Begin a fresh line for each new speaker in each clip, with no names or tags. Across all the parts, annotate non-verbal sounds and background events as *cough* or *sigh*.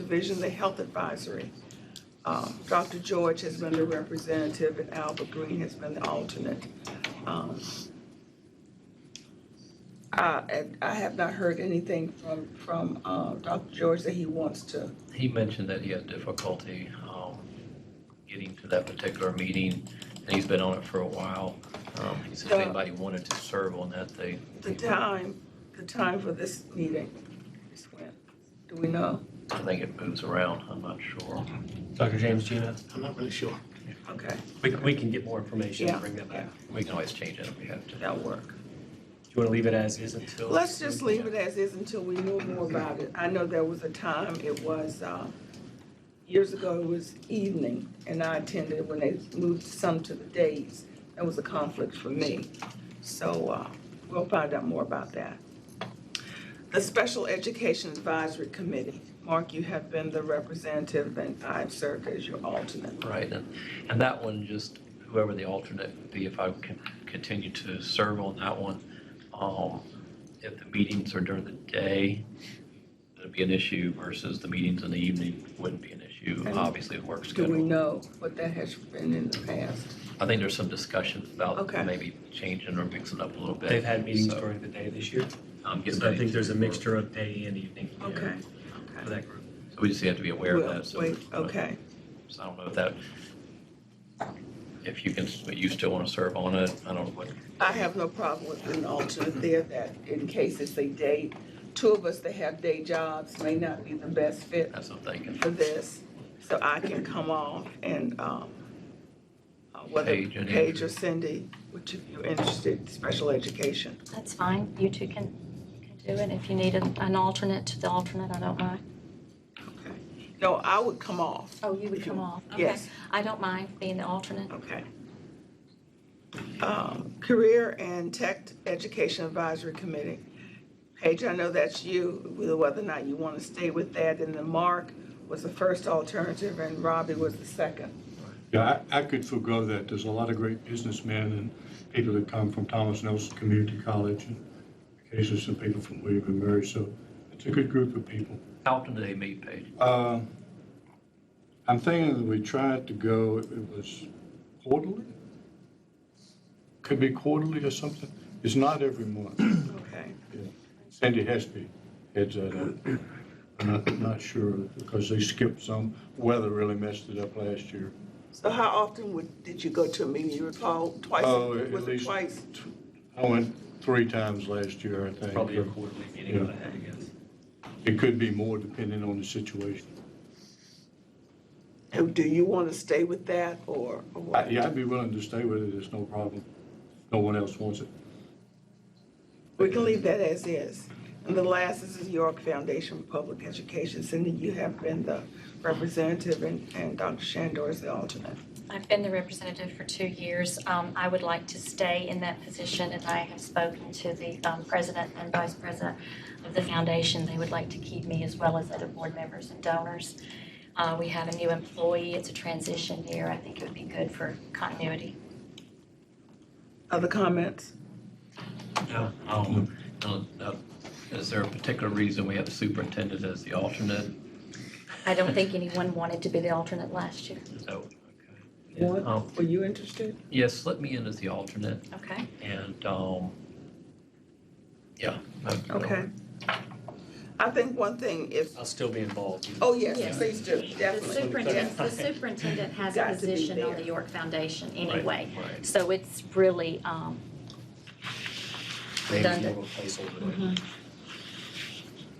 Division, the Health Advisory. Um, Dr. George has been the representative and Albert Green has been the alternate. Um, I, and I have not heard anything from, from, uh, Dr. George that he wants to,
He mentioned that he had difficulty um, getting to that particular meeting, and he's been on it for a while. Um, He said if
The-
anybody wanted to serve on that, they,
the time, the time for this meeting is when? Do we know?
I think it moves around, I'm not sure.
Dr. James, Gina,
I'm not really sure.
Okay,
we, we can get more information
Yeah.
and bring that back.
We can always change it if we have to.
that'll work.
Do you want to leave it as is until?
Let's just leave it as is until we know more about it. I know there was a time, it was, uh, years ago, it was evening, and I attended when they moved some to the days. That was a conflict for me. So, uh, we'll find out more about that. The Special Education Advisory Committee. Mark, you have been the representative, and I've served as your alternate.
Right, and, and that one, just whoever the alternate would be, if I can continue to serve on that one, um, if the meetings are during the day, it'd be an issue versus the meetings in the evening wouldn't be an issue,
And
obviously, the work
Do we
schedule.
know what that has been in the past?
I think there's some discussion about
Okay.
maybe changing or mixing up a little bit.
They've had meetings
so
during the day this year,
I'm getting
so I
ready
think there's a
to-
mixture of day and evening. yeah,
Okay.
For that group.
So we just have to be aware of
Well,
that, so.
wait, Okay.
So I don't know if that, if you can, you still want to serve on it, I don't know what.
I have no problem with an alternate there that in case it's a day, two of us that have day jobs may not be the best fit
That's what I'm thinking.
for this. So I can come off and, um, uh, whether
Paige and
Paige or Cindy, which if you're interested, special education.
That's fine. You two can, can do it. If you need an, an alternate to the alternate, I don't mind.
Okay. No, I would come off.
Oh, you would come off? Okay.
Yes.
I don't mind being the alternate.
Okay. Um, Career and Tech Education Advisory Committee. Paige, I know that's you, whether or not you want to stay with that. And then Mark was the first alternative and Robbie was the second.
Yeah, I, I could forego that. There's a lot of great businessmen and people that come from Thomas Nelson Community College and occasionally some people from William and Mary. So it's a good group of people.
How often do they meet, Paige?
Uh, I'm thinking that we tried to go, it was quarterly? Could be quarterly or something. It's not every month.
Okay.
Sandy Hesby heads that up. I'm not, not sure because they skipped some. Weather really messed it up last year.
So how often would, did you go to a meeting? You recall twice?
Oh, at
Was it
least-
twice?
I went three times last year, I think.
Probably a quarterly meeting,
Yeah.
I had to guess.
It could be more depending on the situation.
And do you want to stay with that or or
I-
what?
Yeah, I'd be willing to stay with it, it's no problem. No one else wants it.
We can leave that as is. And the last is the York Foundation for Public Education. Cindy, you have been the representative and, and Dr. Shandor is the alternate.
I've been the representative for two years. Um, I would like to stay in that position, and I have spoken to the um, president and vice president of the foundation. They would like to keep me as well as other board members and donors. Uh, we have a new employee. It's a transition year. I think it would be good for continuity.
Other comments?
No. Um, no, no. Uh, Is there a particular reason we have the superintendent as the alternate?
I
*laughs*
don't think anyone wanted to be the alternate last year.
Is that- okay.
What?
Um,
Were you interested?
Yes, let me in as the alternate,
Okay.
and, um, yeah. I'd go.
Okay. I think one thing if,
I'll still be involved.
oh, yes,
Yes.
please do,
The
definitely. yes.
superintendent, the superintendent has a
Got to be
position on
there.
the York Foundation
Right,
anyway.
right.
So it's really, um,
Maybe
Done.
more of a
Mm-hmm.
placeholder.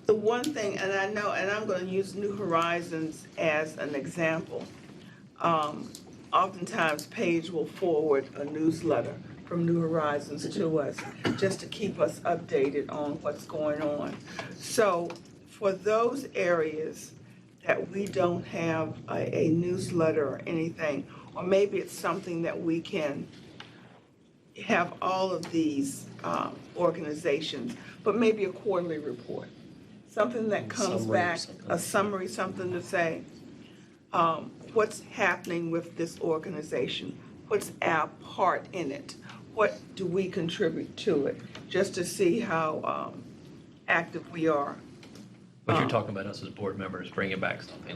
The one thing, and I know, and I'm gonna use New Horizons as an example. Um, Oftentimes, Paige will forward a newsletter from New Horizons to us, just to keep us updated on what's going on. So for those areas that we don't have a, a newsletter or anything, or maybe it's something that we can have all of these, um, organizations, but maybe a quarterly report. Something that comes
Summary or
back, a
something.
summary, something to say, um, what's happening with this organization? What's our part in it? What do we contribute to it? Just to see how, um, active we are
But you're
Oh.
talking about us as board members bringing back something